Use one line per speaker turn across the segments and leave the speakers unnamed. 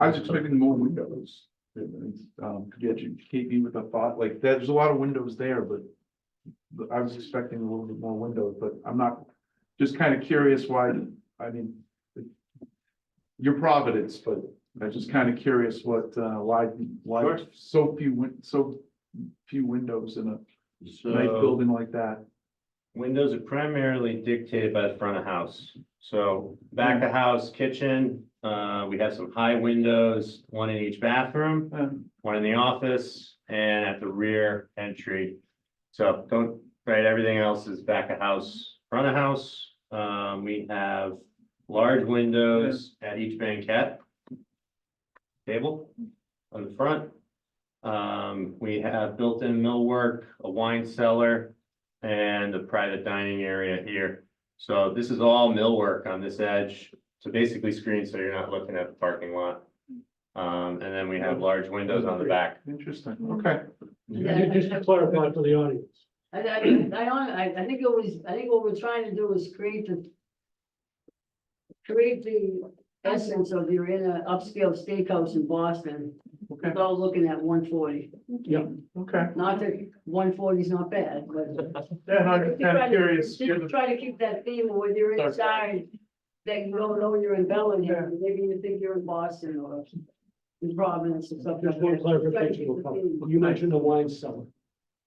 I was expecting more windows. Um, could you educate me with a thought, like, there's a lot of windows there, but. But I was expecting a little bit more windows, but I'm not, just kind of curious why, I mean. Your Providence, but I'm just kind of curious what, uh, why, why
Sure.
so few, win- so few windows in a nice
So
building like that.
windows are primarily dictated by the front of house. So back of house kitchen, uh, we have some high windows, one in each bathroom,
Um,
one in the office and at the rear entry. So don't, right, everything else is back of house, front of house. Um, we have large windows at each banquette. Table on the front. Um, we have built-in millwork, a wine cellar, and a private dining area here. So this is all millwork on this edge to basically screen so you're not looking at the parking lot. Um, and then we have large windows on the back.
Interesting, okay.
Yeah.
Just to clarify for the audience,
I, I, I, hon- I, I think it was, I think what we're trying to do is create the. Create the essence of your inner upscale steakhouse in Boston,
Okay,
without looking at one forty.
Yep. okay.
Not that one forty is not bad, but.
Yeah, no, I'm just kind of curious. given-
Just Try to keep that theme of when you're
Sorry.
inside, that you don't know you're in Bellingham, maybe you think you're in Boston or. In Providence or something.
just one clarification. will come. You mentioned the wine cellar.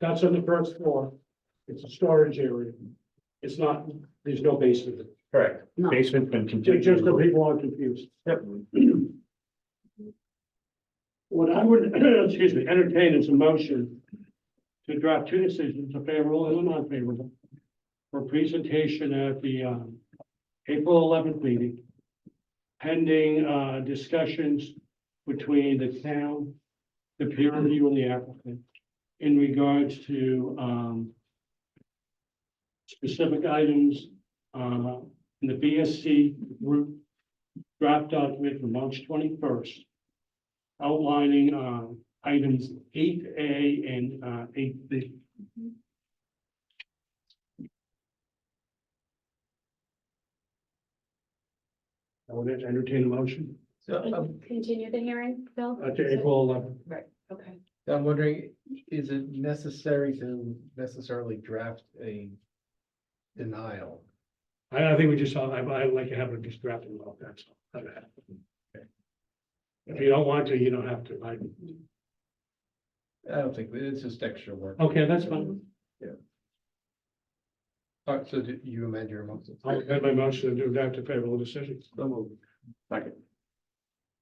That's on the first floor. It's a storage area. It's not, there's no basement.
Correct.
No.
Basement's been
Ju- Just so people aren't confused. What I would, excuse me, entertain is a motion to draft two decisions, a favorable and a non-favorable, for presentation at the, um, April eleventh meeting, pending, uh, discussions between the town, the peer review and the applicant in regards to, um, specific items, uh, in the BSC group draft document for March twenty-first outlining um, items eight A and uh, eight B. I would entertain a motion
Continue the hearing, Bill?
uh, to April eleventh.
Okay.
I'm wondering, is it necessary to necessarily draft a denial?
I, I think we just saw, I, I like to have it just drafted well, that's all. If you don't want to, you don't have to, right?
I don't think, it's just extra work.
Okay, that's fine.
Uh, So do you amend your motion?
I'll amend my motion to draft a favorable decision.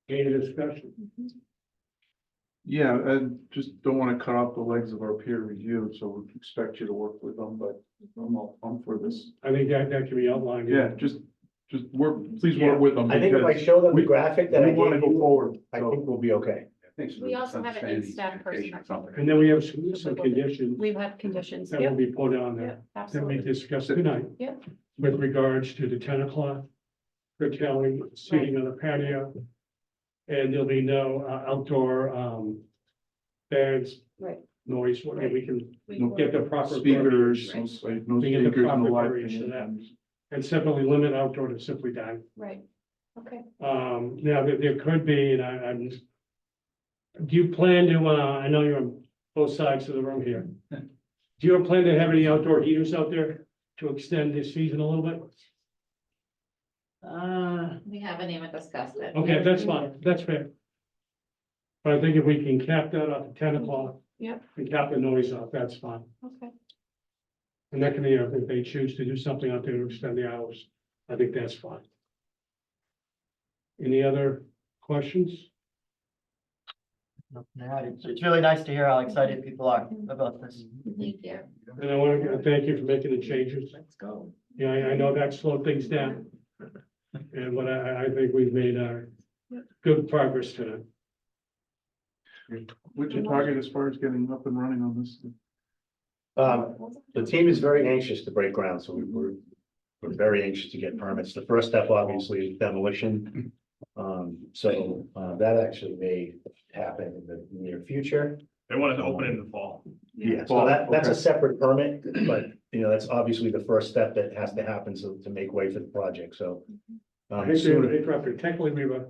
Any discussion?
Yeah, and just don't want to cut off the legs of our peer review, so we expect you to work with them, but I'm all, I'm for this.
I think that, that can be outlined.
Yeah, just, just work, please work with them.
I think if I
because
show them the
we-
graphic that I
We want to
gave
go
you,
forward,
I
so.
think we'll be okay.
We also have an in-staff person.
And then we have some, some conditions
We have conditions.
that will be put on there.
Yep,
Then we
absolutely.
discuss tonight.
Yep.
With regards to the ten o'clock, curtailing seating on the patio. And there'll be no uh, outdoor, um, bands.
Right.
Noise, whatever, we can
We
no,
will-
get the proper.
Speakers, no
Right.
s- like, no
We get the
speakers, no
proper
live.
variation of that.
band.
And simply limit outdoor to simply dining.
Right, okay.
Um, now, there, there could be, and I, I'm. Do you plan to, uh, I know you're on both sides of the room here. Do you plan to have any outdoor heaters out there to extend this season a little bit?
Uh,
We haven't even discussed it.
Okay, that's fine, that's fair. But I think if we can cap that off at ten o'clock.
Yep.
And cap the noise off, that's fine.
Okay,
And that can be, uh, if they choose to do something out there to extend the hours, I think that's fine. Any other questions?
Yeah, it's, it's really nice to hear how excited people are about this.
Thank you.
And I want to thank you for making the changes.
Let's go.
Yeah, I, I know that slowed things down. And what I, I- I think we've made our good progress today.
What's your target as far as getting up and running on this?
Um, the team is very anxious to break ground, so we were, we're very anxious to get permits. The first step obviously is demolition. Um, so, uh, that actually may happen in the near future.
They wanted
to open in
the fall.
Yeah, so that, that's a
Okay.
separate permit, but, you know, that's obviously the first step that has to happen so to make way for the project, so.
I
Um,
think we were
soon,
interrupted, technically we were